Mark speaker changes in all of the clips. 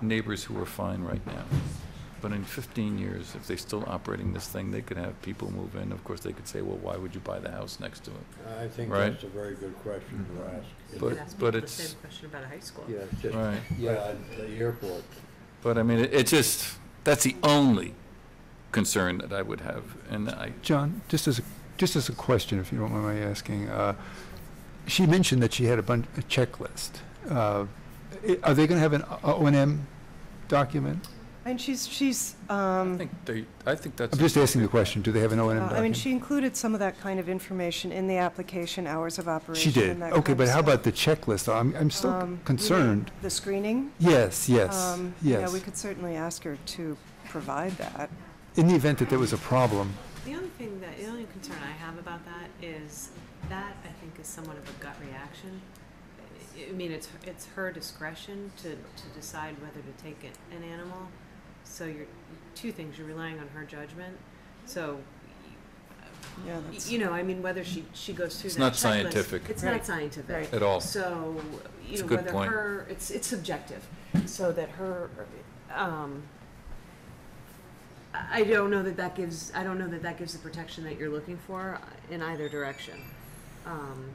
Speaker 1: neighbors who are fine right now. But in 15 years, if they're still operating this thing, they could have people move in. Of course, they could say, well, why would you buy the house next to it?
Speaker 2: I think
Speaker 1: Right. Mm-hmm.
Speaker 2: that's a very good question to ask.
Speaker 3: You
Speaker 1: But-
Speaker 3: could ask people
Speaker 1: but
Speaker 3: the
Speaker 1: it's-
Speaker 3: same question about a high school.
Speaker 2: Yeah, it's just,
Speaker 1: Right.
Speaker 2: yeah, the airport.
Speaker 1: But I mean, it it just, that's the only concern that I would have. And I,
Speaker 4: John, just as, a just as a question, if you don't mind my asking, uh, she mentioned that she had a bunch, a checklist. Uh, i- Are they going to have an uh, O and M document?
Speaker 5: And she's, she's,
Speaker 1: I
Speaker 5: um,
Speaker 1: think they, I think that's.
Speaker 4: I'm just asking the question, do they have an O
Speaker 5: uh,
Speaker 4: and M
Speaker 5: I mean,
Speaker 4: document?
Speaker 5: she included some of that kind of information in the application, hours of
Speaker 4: She
Speaker 5: operation.
Speaker 4: did,
Speaker 5: and that
Speaker 4: okay,
Speaker 5: kind
Speaker 4: but
Speaker 5: of
Speaker 4: how
Speaker 5: stuff.
Speaker 4: about the checklist? I'm, I'm still
Speaker 5: Um, you
Speaker 4: c-
Speaker 5: mean
Speaker 4: concerned.
Speaker 5: The screening?
Speaker 4: Yes, yes,
Speaker 5: Um, Yeah, we
Speaker 4: yes.
Speaker 5: could certainly ask her to provide that.
Speaker 4: In the event that there was a problem,
Speaker 3: The only thing that, the only concern I have about that is that I think is somewhat of a gut reaction. I- I mean, it's, it's her discretion to, to decide whether to take an, an animal. So you're, two things, you're relying on her judgment. So,
Speaker 5: Yeah,
Speaker 3: y-
Speaker 5: that's,
Speaker 3: you know, I mean, whether she, she goes through
Speaker 1: It's
Speaker 3: that
Speaker 1: not
Speaker 3: checklist-
Speaker 1: scientific.
Speaker 3: It's not
Speaker 5: Right.
Speaker 3: scientific.
Speaker 5: Right.
Speaker 1: At all.
Speaker 3: So, you
Speaker 1: Oh. It's a
Speaker 3: know,
Speaker 1: good
Speaker 3: whether
Speaker 1: point.
Speaker 3: her, it's, it's subjective, so that her, um, I I don't know that that gives, I don't know that that gives the protection that you're looking for in either direction. Um,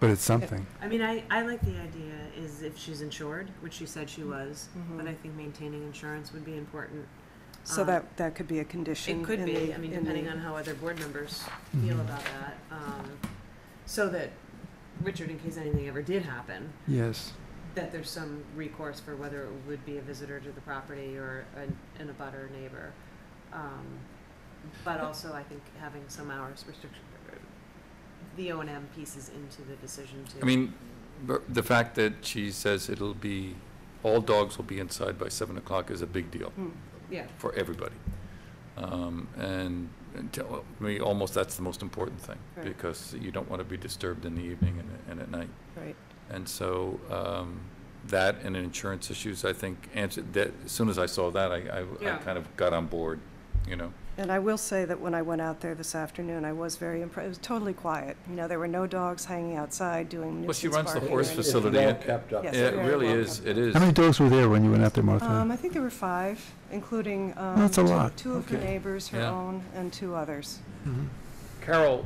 Speaker 4: but it's something.
Speaker 3: I mean, I, I like the idea is if she's insured, which she said she was, but I think maintaining insurance would be important.
Speaker 5: mm-hmm. so
Speaker 3: Um,
Speaker 5: that, that could be a condition.
Speaker 3: It could
Speaker 5: in
Speaker 3: be,
Speaker 5: the-
Speaker 3: I mean,
Speaker 5: in
Speaker 3: depending
Speaker 5: the-
Speaker 3: on how other board members feel about that. um, So that, Richard, in case anything ever did happen,
Speaker 4: Yes,
Speaker 3: that there's some recourse for whether it would be a visitor to the property or an, an abutter neighbor. Um, But also, I think having some hours restriction, the O and M pieces into the decision to.
Speaker 1: I mean, but the fact that she says it'll be, all dogs will be inside by seven o'clock is a big deal
Speaker 5: Hmm.
Speaker 3: Yeah,
Speaker 1: for everybody. Um, and, and tell me, almost that's the most important thing,
Speaker 5: Right.
Speaker 1: because you don't want to be disturbed in the evening and, and at night.
Speaker 5: Right,
Speaker 1: And so, um, that and insurance issues, I think, answered, that, as soon as I saw that, I, I, I
Speaker 3: Yeah.
Speaker 1: kind of got on board, you know?
Speaker 5: and I will say that when I went out there this afternoon, I was very impressed, it was totally quiet. You know, there were no dogs hanging outside doing
Speaker 1: Well, she
Speaker 5: nuisance
Speaker 1: runs the
Speaker 5: barking.
Speaker 1: horse
Speaker 5: or
Speaker 2: It's
Speaker 5: anything.
Speaker 1: facility.
Speaker 2: well kept up.
Speaker 5: Yes,
Speaker 1: Yeah, it
Speaker 5: very
Speaker 1: really
Speaker 5: well
Speaker 1: is,
Speaker 5: kept.
Speaker 1: it is.
Speaker 4: How many dogs were there when you went out there,
Speaker 5: Um,
Speaker 4: Martha?
Speaker 5: I think there were five, including, um.
Speaker 4: That's a
Speaker 5: two-
Speaker 4: lot.
Speaker 5: Two of her
Speaker 4: Okay.
Speaker 5: neighbors, her
Speaker 1: Yeah.
Speaker 5: own, and two others.
Speaker 4: Mhm.
Speaker 1: Carol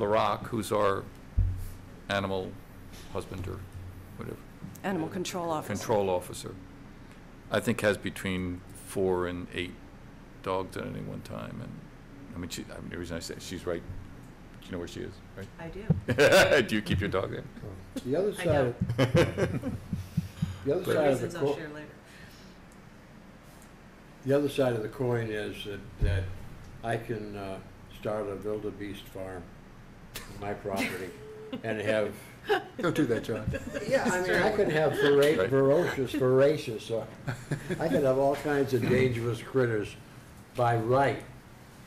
Speaker 1: LaRock, who's our animal husbander, whatever,
Speaker 5: Animal control officer.
Speaker 1: control officer, I think has between four and eight dogs at any one time, and, I mean, she, I mean, the reason I say, she's right, you know where she is,
Speaker 3: I do.
Speaker 1: right? Do you keep your dog there?
Speaker 2: The other
Speaker 3: I
Speaker 2: side, the other
Speaker 1: But-
Speaker 2: side of the
Speaker 3: Reasons I'll
Speaker 2: coin,
Speaker 3: share later.
Speaker 2: the other side of the coin is that, that I can, uh, start a wildebeest farm on my property and have,
Speaker 4: Don't do that, John.
Speaker 2: yeah, I mean, I could have vera-
Speaker 1: Right.
Speaker 2: ferocious, voracious, uh, I could have all kinds of dangerous critters by right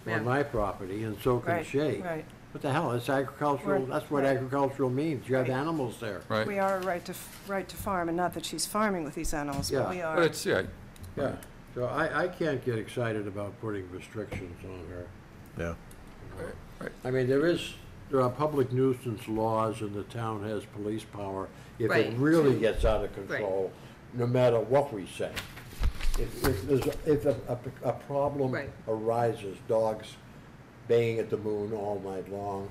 Speaker 3: Yeah.
Speaker 2: on my property, and so can
Speaker 5: Right,
Speaker 2: Shay.
Speaker 5: right.
Speaker 2: What the hell, it's agricultural,
Speaker 5: We're-
Speaker 2: that's what
Speaker 5: right.
Speaker 2: agricultural means, you have
Speaker 5: Right.
Speaker 2: animals there.
Speaker 1: Right?
Speaker 5: We are a right to, f- right to farm, and not that she's farming with these animals, but
Speaker 2: Yeah.
Speaker 5: we
Speaker 1: But
Speaker 5: are.
Speaker 1: it's, yeah,
Speaker 2: Yeah, so I, I can't get excited about putting restrictions on her.
Speaker 6: Yeah.
Speaker 2: you know. I mean, there is, there are public nuisance laws and the town has police power. If it
Speaker 3: Right.
Speaker 2: really gets out of control, no matter what we say. If, if there's, if a, a, a problem
Speaker 3: Right.
Speaker 2: arises, dogs baying at the moon all night long,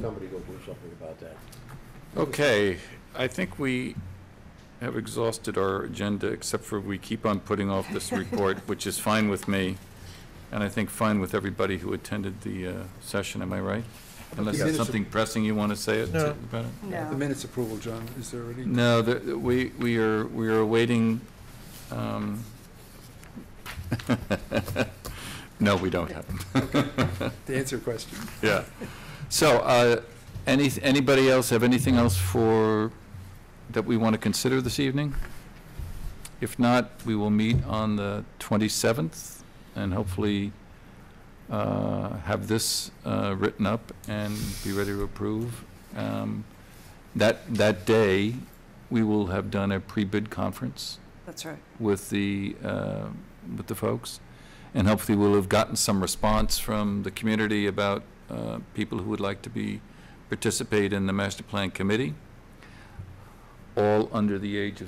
Speaker 2: somebody will do something about that.
Speaker 1: Okay, I think we have exhausted our agenda, except for we keep on putting off this report, which is fine with me, and I think fine with everybody who attended the uh, session, am I right? Unless there's
Speaker 4: minutes of-
Speaker 1: something pressing you want to say it-
Speaker 6: No.
Speaker 1: about it?
Speaker 4: The
Speaker 5: No.
Speaker 4: minutes approval, John, is there any?
Speaker 1: No, the- we, we are, we are awaiting, um, no, we don't have them.
Speaker 4: To answer your question.
Speaker 1: Yeah. So, uh, any, anybody else have anything else for, that we want to consider this evening? If not, we will meet on the 27th and hopefully uh, have this uh, written up and be ready to approve. Um, That, that day, we will have done a pre-bid conference
Speaker 5: That's right.
Speaker 1: with the, uh, with the folks. And hopefully we'll have gotten some response from the community about uh, people who would like to be, participate in the master plan committee, all under the age of